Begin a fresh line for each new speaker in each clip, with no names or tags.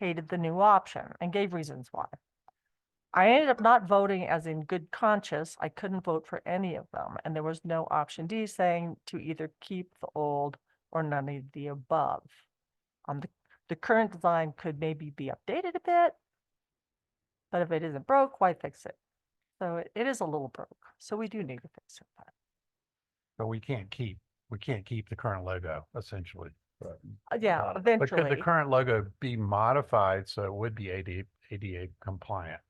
hated the new option and gave reasons why. I ended up not voting as in good conscience. I couldn't vote for any of them, and there was no option D saying to either keep the old or none of the above. Um, the, the current design could maybe be updated a bit, but if it isn't broke, why fix it? So it, it is a little broke, so we do need to fix it.
But we can't keep, we can't keep the current logo essentially.
Uh, Yeah,
Uh, But could the
eventually.
current logo be modified so it would be ADA, ADA compliant?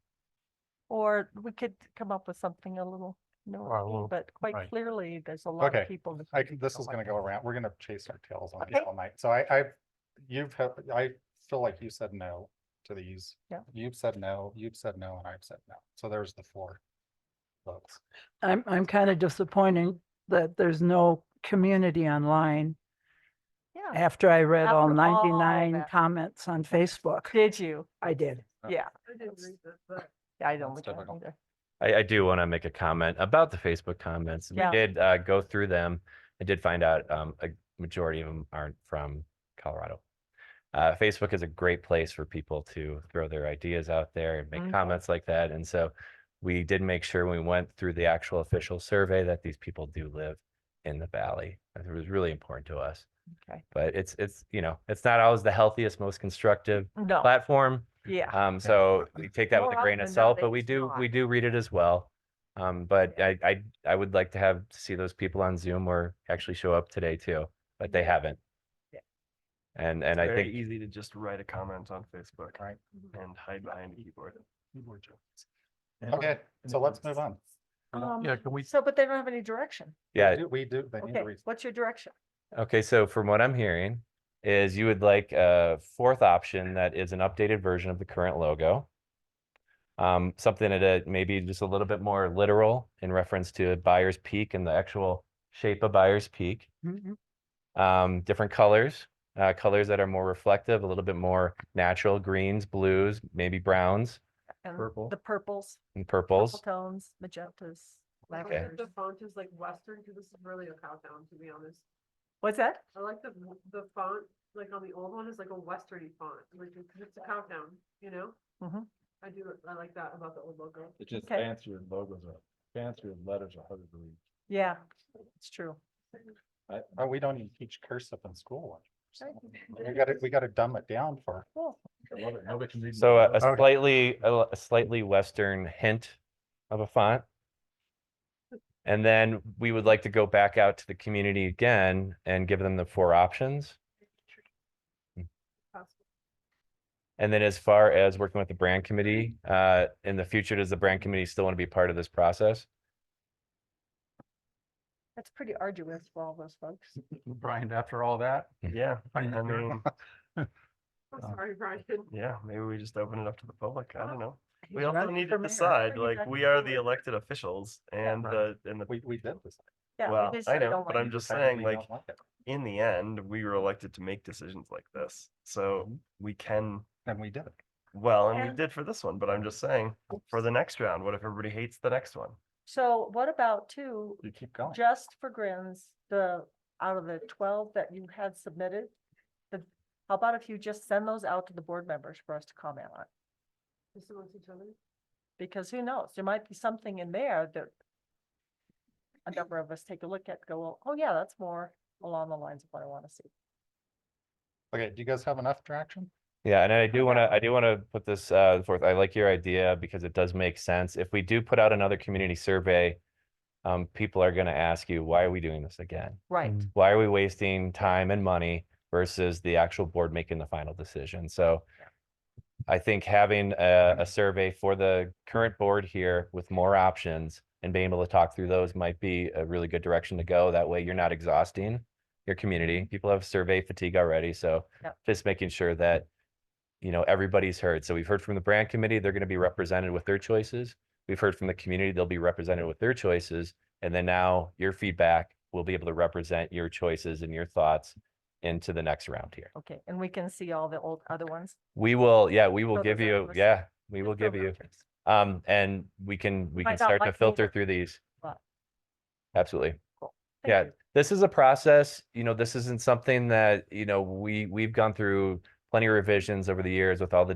Or we could come up with something a little
Or a
noisy,
little-
but quite
right.
clearly, there's a lot
Okay,
of people. that
I
think
can,
they
this
don't
is
like
gonna
it.
go around, we're gonna chase our tails on these
Okay.
all night, so I, I, you've, had- I feel like you said no to these.
Yeah.
You've said no, you've said no, and I've said no, so there's the four votes.
I'm, I'm kind of disappointed that there's no community online
Yeah,
after I read all
After all
99
that.
comments on Facebook.
did you?
I did.
Yeah. Yeah, I don't
That's
look at it
difficult.
either.
I, I do want to make a comment about the Facebook comments. We
Yeah.
did uh, go through them. I did find out um, a majority of them aren't from Colorado. Uh, Facebook is a great place for people to throw their ideas out there and make
Mhm.
comments like that. And so we did make sure when we went through the actual official survey that these people do live in the valley. I think It was really important to us.
Okay.
But it's it's you know it's not always the healthiest, most constructive
No,
platform.
yeah,
Um, so we take that with
More
a grain of
often now
salt,
than
but we
it's
do, we
not.
do read it as well. Um, but I, I, I would like to have, see those people on Zoom or actually show up today too, but they haven't.
Yeah.
And, and I
very
think,
easy to just write a comment on Facebook
Right.
and hide behind a keyboard. Keyboard jokes.
Okay, so let's move on.
Um,
Yeah, can we,
so, but they don't have any direction.
We
yeah,
do- We do, they need
Okay,
a reason.
what's your direction?
okay, so from what I'm hearing is you would like a fourth option that is an updated version of the current logo. Um, something that uh, maybe just a little bit more literal in reference to Buyer's Peak and the actual shape of Buyer's Peak.
Mhm.
um, different colors, uh, colors that are more reflective, a little bit more natural, greens, blues, maybe browns
And
Purple.
The purples,
and
purple
purples.
tones, magentas,
I like
lavenders.
that The font is like Western, because this is really a cow town, to be honest.
What's that?
I like the, w- the font, like on the old one is like a Westerny font, like, because it's a cow town, you know?
Mhm.
I do, I like that about the old logo.
It's just
Okay.
fancier logos are, fancier letters are harder to read.
Yeah, it's true.
Oh, we don't even teach cursive in school. We gotta, we gotta dumb it down for.
Cool.
So uh, a, a
Okay.
slightly, a l- a slightly Western hint of a font. And then we would like to go back out to the community again and give them the four options. Hmm.
Possible.
And then as far as working with the brand committee, uh, in the future, does the brand committee still want to be part of this process?
That's pretty arduous for all those folks.
Brian, after all that?
Yeah, I
Are you sure?
mean,
I'm sorry, Brian.
yeah, maybe we just open it up to the public. I don't know. We
He's
also
running
need
for
to
mayor.
decide,
Pretty
like, we
much.
are the elected officials and the,
Right.
and the,
We, we did this.
Yeah, we
well,
just
I know,
don't
but
like
I'm
it.
just
I
saying,
really
like,
don't like it.
in the end, we were elected to make decisions like this. So we can,
And we did it.
well, and we
And-
did for this one, but I'm just saying, for the next round, what if everybody hates the next one?
So what about two,
You keep going.
just for grins, the, out of the twelve that you had submitted? The, how about if you just send those out to the board members for us to comment on?
Just amongst each other.
Because who knows, there might be something in there that a number of us take a look at, go, "Well, oh yeah, that's more along the lines of what I want to see.
Okay, do you guys have enough direction?
Yeah, and I do want to, I do want to put this uh forth. I like your idea because it does make sense. If we do put out another community survey, um, people are going to ask you, why are we doing this again?
Right,
Mm.
Why are we wasting time and money versus the actual board making the final decision? So I think having a, a survey for the current board here with more options and being able to talk through those might be a really good direction to go. That way you're not exhausting your community. People have survey fatigue already, so
Yep.
just making sure that, you know, everybody's heard. So we've heard from the brand committee, they're going to be represented with their choices. We've heard from the community, they'll be represented with their choices. And then now your feedback will be able to represent your choices and your thoughts into the next round here.
okay, and we can see all the old other ones.
We will, yeah, we will
Filter
give
them,
you,
let's-
yeah, we will
Throw
give
them
you.
out first.
Um, and we can, we
Might
can
not
start to
like me,
filter
but-
through these.
Well.
Absolutely.
Thank
Yeah,
you.
this is a process, you know, this isn't something that, you know, we, we've gone through plenty of revisions over the years with all the